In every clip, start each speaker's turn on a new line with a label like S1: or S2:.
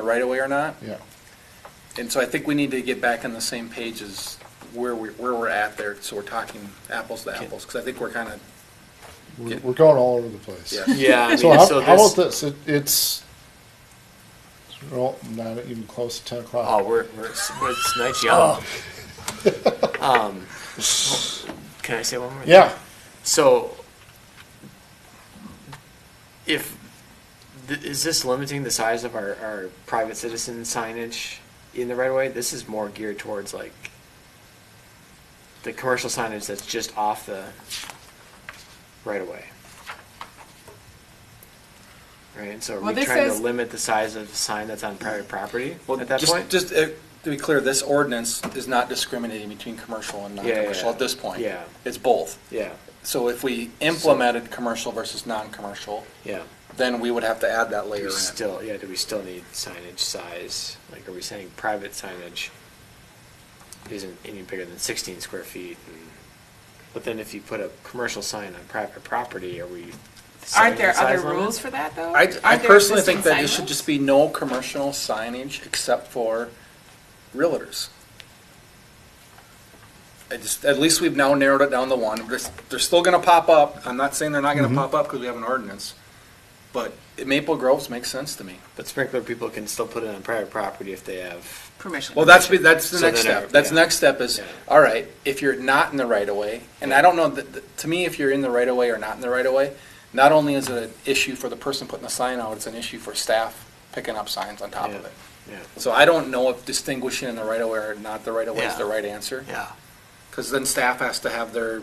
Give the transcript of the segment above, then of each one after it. S1: the right of way or not.
S2: Yeah,
S1: And so I think we need to get back on the same page as where we, where we're at there, so we're talking apples to apples, because I think we're kind of,
S2: we're,
S1: Yeah.
S2: we're going all over the place.
S1: Yeah.
S3: Yeah, I mean,
S2: So how,
S3: so
S2: how
S3: this,
S2: about this? It, it's well, not even close to ten o'clock.
S3: oh, we're, we're, it's, we're- it's nice
S1: Oh,
S3: young. um, can I say one more? thing?
S2: Oh. yeah,
S3: So, if, th- is this limiting the size of our, our private citizen signage in the right of way? This is more geared towards like the commercial signage that's just off the right of way. Right, so are
S4: Well,
S3: we
S4: this
S3: trying to
S4: says-
S3: limit the size of the sign that's on private property
S1: well,
S3: at that
S1: just,
S3: point?
S1: just uh, to be clear, this ordinance is not discriminating between commercial and
S3: Yeah, yeah,
S1: non-commercial
S3: yeah.
S1: at this point.
S3: Yeah.
S1: It's both.
S3: Yeah,
S1: So if we implemented commercial versus non-commercial,
S3: yeah.
S1: then we would have to add that
S3: Do
S1: layer
S3: we
S1: in.
S3: still, yeah, do we still need signage size? Like, are we saying private signage isn't any bigger than sixteen square feet? and- But then if you put a commercial sign on private property, are we? setting
S4: Aren't
S3: the
S4: there
S3: size
S4: other
S3: limit?
S4: rules for that, though?
S1: I, I
S4: Aren't there
S1: personally think
S4: existing
S1: that it
S4: sign
S1: should
S4: rules?
S1: just be no commercial signage except for realtors. I just, at least we've now narrowed it down to one. They're, they're still gonna pop up. I'm not saying they're not gonna pop up because we have an ordinance. But Maple Groves makes sense to me.
S3: But sprinkler people can still put it on private property if they have,
S4: Permission.
S1: Well, that's, that's the
S3: So
S1: next
S3: then
S1: step.
S3: I-
S1: That's
S3: yeah.
S1: the next step is,
S3: Yeah.
S1: all right, if you're not in the right of way, and I don't know, that- that- to me, if you're in the right of way or not in the right of way, not only is it an issue for the person putting the sign out, it's an issue for staff picking up signs on top of
S3: Yeah.
S1: it.
S3: yeah.
S1: So I don't know if distinguishing in the right of way or not the right of way is
S3: Yeah.
S1: the right answer.
S3: Yeah.
S1: Because then staff has to have their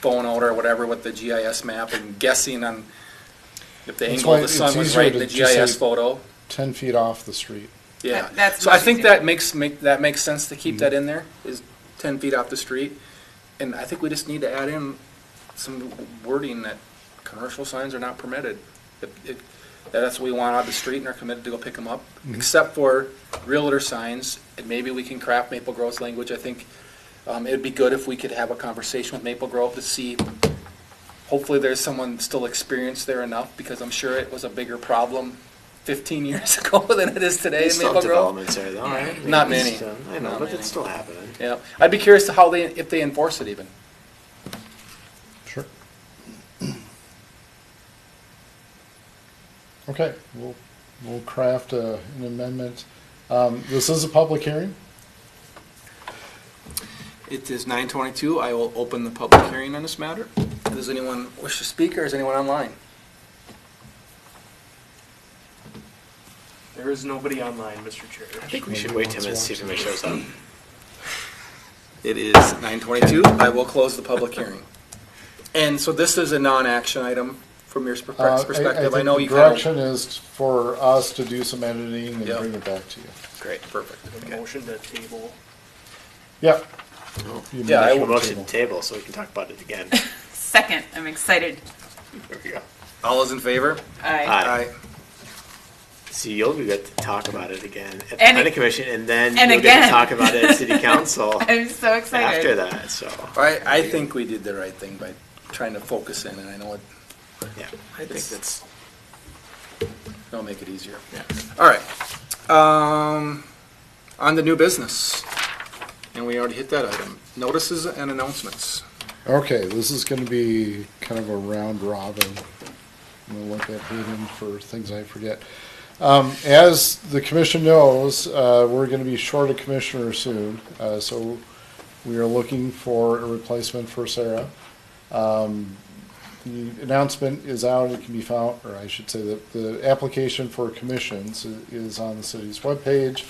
S1: phone out or whatever with the GIS map and guessing on if the
S2: That's
S1: angle
S2: why
S1: of the
S2: it's
S1: sun was
S2: easier
S1: right in
S2: to
S1: the
S2: just say-
S1: GIS photo.
S2: ten feet off the street.
S1: Yeah.
S4: That- that's
S1: So I
S4: much
S1: think
S4: easier.
S1: that makes, make, that makes sense to keep that in there, is ten feet off the street. And I think we just need to add in some wording that commercial signs are not permitted. If- if- that That's what we want out of the street and are committed to go pick them up, except for realtor signs. And maybe we can craft Maple Grove's language. I think, um, it'd be good if we could have a conversation with Maple Grove to see hopefully there's someone still experienced there enough, because I'm sure it was a bigger problem fifteen years ago than it is today
S3: There's
S1: in
S3: still
S1: Maple
S3: have
S1: Grove.
S3: developments there though, right?
S1: Not
S3: Maybe
S1: many.
S3: it's done. I know,
S1: Not
S3: but
S1: many.
S3: it's still happening.
S1: Yeah, I'd be curious to how they, if they enforce it even.
S2: Sure. Okay, we'll, we'll craft a, an amendment. Um, this is a public hearing.
S1: It is nine twenty-two, I will open the public hearing on this matter. Does anyone wish to speak, or is anyone online?
S5: There is nobody online, Mr. Chair.
S3: I think we should wait ten minutes, see if anybody shows up.
S1: It is nine twenty-two, I will close the public hearing. And so this is a non-action item from your
S2: Uh, I- I
S1: perspec- perspective, I
S2: think
S1: know
S2: the
S1: you kind of.
S2: Direction is for us to do some editing and
S1: Yep.
S2: bring it back to you.
S3: Great.
S1: Perfect.
S5: A
S1: okay.
S5: motion to table.
S2: Yeah. You
S1: Yeah, I
S2: mentioned
S1: will-
S3: Motion
S2: table.
S3: to table, so we can talk about it again.
S4: Second, I'm excited.
S3: There we go.
S1: All those in favor?
S4: I
S3: Aye. So you'll be good to talk about it again at the
S4: And-
S3: planning commission, and then
S4: and
S3: you'll get
S4: again.
S3: to talk about it at city council
S4: I'm so excited.
S3: after that. So
S1: I, I think we did the right thing by trying to focus in, and I know it,
S3: yeah, I think that's
S1: it'll make it easier.
S3: yeah.
S1: All right. Um, on the new business, and we already hit that item. Notices and announcements.
S2: Okay, this is gonna be kind of a round robin. I'm gonna look at Hayden for things I forget. Um, as the commission knows, uh, we're gonna be short a commissioner soon, uh, so we are looking for a replacement for Sarah. Um, the announcement is out, it can be found, or I should say that the application for commissions i- is on the city's webpage.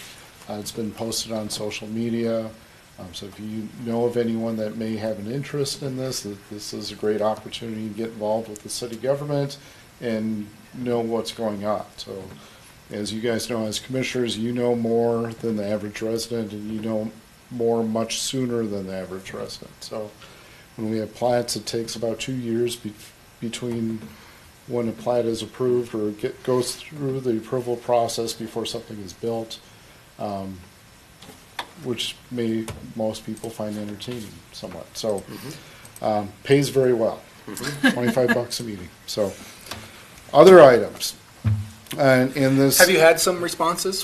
S2: Uh, it's been posted on social media, um, so if you know of anyone that may have an interest in this, that this is a great opportunity to get involved with the city government and know what's going on, so as you guys know, as commissioners, you know more than the average resident, and you know more much sooner than the average resident. So when we have plats, it takes about two years be- between when a plat is approved or get, goes through the approval process before something is built, um, which may most people find entertaining somewhat. So um, pays very well, twenty-five bucks a meeting. So other items. And, and this.
S1: Have you had some responses